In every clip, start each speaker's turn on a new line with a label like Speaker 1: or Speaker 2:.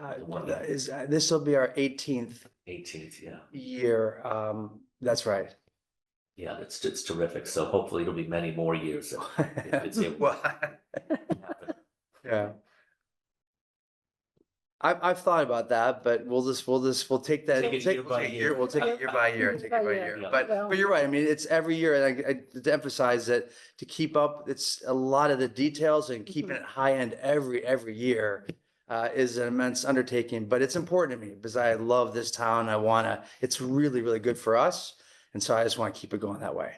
Speaker 1: God, what the- is, uh, this will be our eighteenth
Speaker 2: Eighteenth, yeah,
Speaker 1: year. Um, that's right.
Speaker 2: yeah, it's, it's terrific. So hopefully it'll be many more years. that If it's able-
Speaker 1: Well,
Speaker 2: happen.
Speaker 1: Yeah. I've, I've thought about that, but we'll just, we'll just, we'll take that,
Speaker 2: Take
Speaker 1: we'll
Speaker 2: it
Speaker 1: take
Speaker 2: year
Speaker 1: we'll
Speaker 2: by
Speaker 1: take it
Speaker 2: year.
Speaker 1: year, we'll take it year by year, take it by year.
Speaker 2: Yeah.
Speaker 1: But, but you're right. I mean, it's every year and I, I to emphasize that to keep up, it's a lot of the details and keeping
Speaker 2: Mm-hmm.
Speaker 1: it high end every, every year uh, is an immense undertaking, but it's important to me because I love this town. I want to, it's really, really good for us. And so I just want to keep it going that way.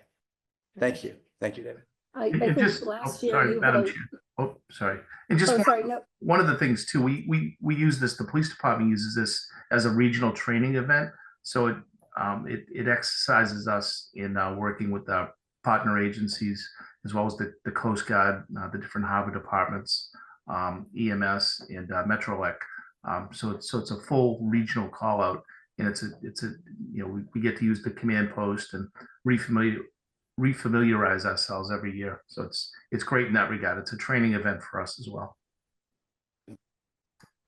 Speaker 1: Thank you. Thank you, David.
Speaker 3: I, I
Speaker 4: It
Speaker 3: think
Speaker 4: just- oh,
Speaker 3: last year
Speaker 4: Sorry,
Speaker 3: you
Speaker 4: Madam
Speaker 3: voted,
Speaker 4: Chair. Oh, sorry. And just
Speaker 3: oh,
Speaker 4: one-
Speaker 3: sorry, no,
Speaker 4: one of the things too, we, we, we use this, the police department uses this as a regional training event. So it, um, it, it exercises us in, uh, working with our partner agencies as well as the, the Coast Guard, uh, the different harbor departments, um, EMS and, uh, Metrolec. Um, so it's, so it's a full regional call out and it's a, it's a, you know, we, we get to use the command post and refamiliar, refamiliarize ourselves every year. So it's, it's great in that regard. It's a training event for us as well.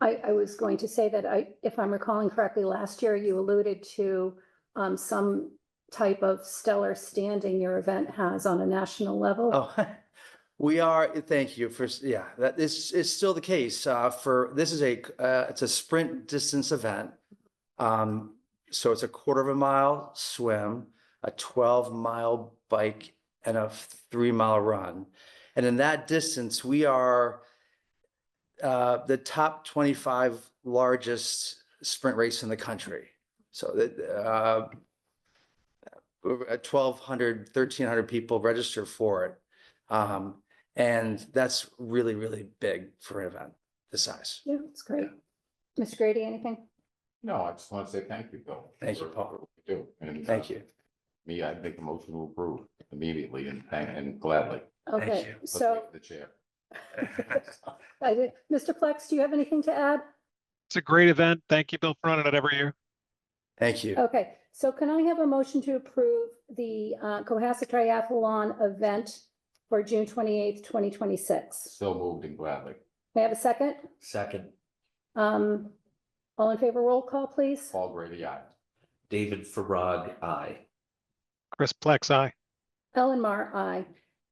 Speaker 3: I, I was going to say that I, if I'm recalling correctly, last year you alluded to um, some type of stellar standing your event has on a national level.
Speaker 1: Oh, we are, thank you for, s- yeah, that is, is still the case, uh, for, this is a, uh, it's a sprint distance event. Um, so it's a quarter of a mile swim, a twelve mile bike and a three mile run. And in that distance, we are uh, the top twenty-five largest sprint race in the country. So that, uh, over 1,200, 1,300 people register for it. Um, and that's really, really big for an event this size.
Speaker 3: Yeah, it's great. Mr. Grady, anything?
Speaker 5: No, I just want to say thank you, Bill.
Speaker 1: Thank you,
Speaker 5: for-
Speaker 1: Paul.
Speaker 5: for what you Do. And, uh,
Speaker 1: Thank you.
Speaker 5: Me, I'd make a motion to approve immediately and thank and gladly.
Speaker 3: Okay,
Speaker 1: you.
Speaker 5: Let's
Speaker 3: so
Speaker 5: make The chair.
Speaker 3: I did, Mr. Plex, do you have anything to add?
Speaker 6: It's a great event. Thank you, Bill, for running it every year.
Speaker 1: Thank you.
Speaker 3: Okay, so can I have a motion to approve the uh, Cohasset Triathlon event for June twenty-eighth, twenty twenty-six?
Speaker 5: So moved and gladly.
Speaker 3: May I have a second?
Speaker 2: Second,
Speaker 3: Um, all in favor, roll call, please.
Speaker 5: Paul Grady, aye.
Speaker 2: David Farag, I.
Speaker 6: Chris Plex, aye.
Speaker 3: Ellen Mar, aye.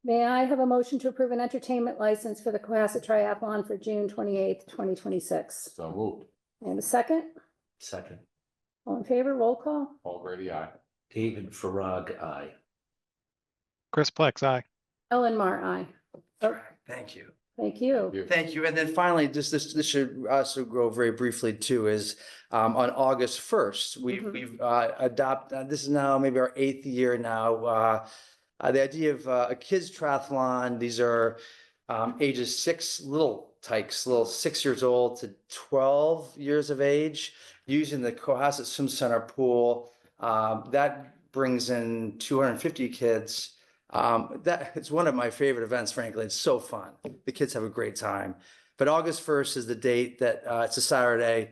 Speaker 3: May I have a motion to approve an entertainment license for the Cohasset Triathlon for June twenty-eighth, twenty twenty-six?
Speaker 5: So moved.
Speaker 3: And a second?
Speaker 2: Second,
Speaker 3: All in favor, roll call?
Speaker 5: Paul Grady, aye.
Speaker 2: David Farag, I.
Speaker 6: Chris Plex, aye.
Speaker 3: Ellen Mar, aye.
Speaker 1: Thank you.
Speaker 3: Thank you.
Speaker 5: You.
Speaker 1: Thank you. And then finally, just this, this should also go very briefly too, is um, on August first, we,
Speaker 3: Mhm.
Speaker 1: we've uh, adopt, uh, this is now maybe our eighth year now. Uh, uh, the idea of uh, a kids triathlon, these are um, ages six, little tykes, little six years old to twelve years of age, using the Cohasset Swim Center pool. Um, that brings in two hundred and fifty kids. Um, that, it's one of my favorite events, frankly. It's so fun. The kids have a great time. But August first is the date that, uh, it's a Saturday.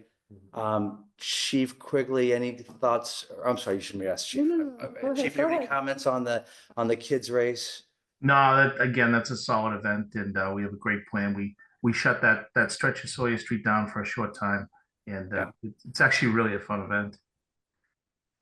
Speaker 1: Um, Chief Quigley, any thoughts? I'm sorry, you shouldn't be asked, Chief.
Speaker 3: No, no, no,
Speaker 1: Uh,
Speaker 3: go ahead,
Speaker 1: Chief, you
Speaker 3: go
Speaker 1: have any
Speaker 3: ahead.
Speaker 1: comments on the, on the kids race?
Speaker 4: No, that, again, that's a solid event and, uh, we have a great plan. We, we shut that, that stretch of Sawyer Street down for a short time. And, uh, it- it's actually really a fun event.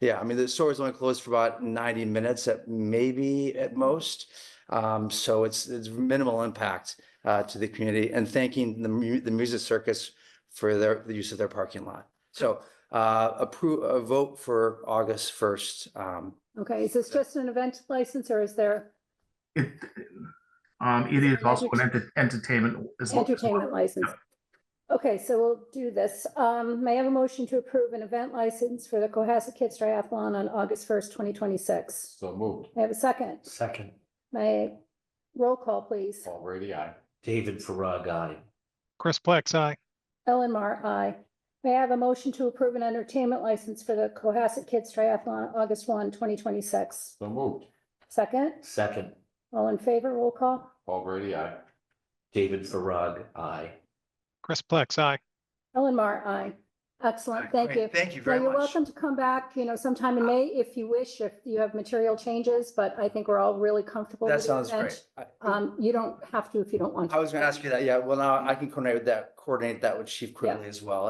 Speaker 1: Yeah, I mean, the store is only closed for about ninety minutes at maybe at most. Um, so it's, it's minimal impact, uh, to the community and thanking the, mu- the music circus for their, the use of their parking lot. So, uh, approve, a vote for August first. Um,
Speaker 3: Okay, is this just an event license or is there
Speaker 4: It, um, it is also an enter- entertainment. as well.
Speaker 3: entertainment license? Okay, so we'll do this. Um, may I have a motion to approve an event license for the Cohasset Kids Triathlon on August first, twenty twenty-six?
Speaker 5: So moved.
Speaker 3: May I have a second?
Speaker 2: Second,
Speaker 3: May, I- roll call, please.
Speaker 5: Paul Grady, aye.
Speaker 2: David Farag, I.
Speaker 6: Chris Plex, aye.
Speaker 3: Ellen Mar, aye. May I have a motion to approve an entertainment license for the Cohasset Kids Triathlon, August 1, 2026?
Speaker 5: So moved.
Speaker 3: Second,
Speaker 2: Second,
Speaker 3: all in favor, roll call.
Speaker 5: Paul Grady, aye.
Speaker 2: David Farag, I.
Speaker 6: Chris Plex, aye.
Speaker 3: Ellen Mar, aye. Excellent, thank you.
Speaker 1: Thank you
Speaker 3: Now, you're welcome to come back, you know, sometime in May if you wish, if you have material changes, but I think we're all really comfortable
Speaker 1: That
Speaker 3: with the
Speaker 1: sounds
Speaker 3: event.
Speaker 1: great. I
Speaker 3: Um, you don't have to if you don't want to.
Speaker 1: I was gonna ask you that, yeah, well, now I can coordinate that, coordinate that with Chief Quigley as well.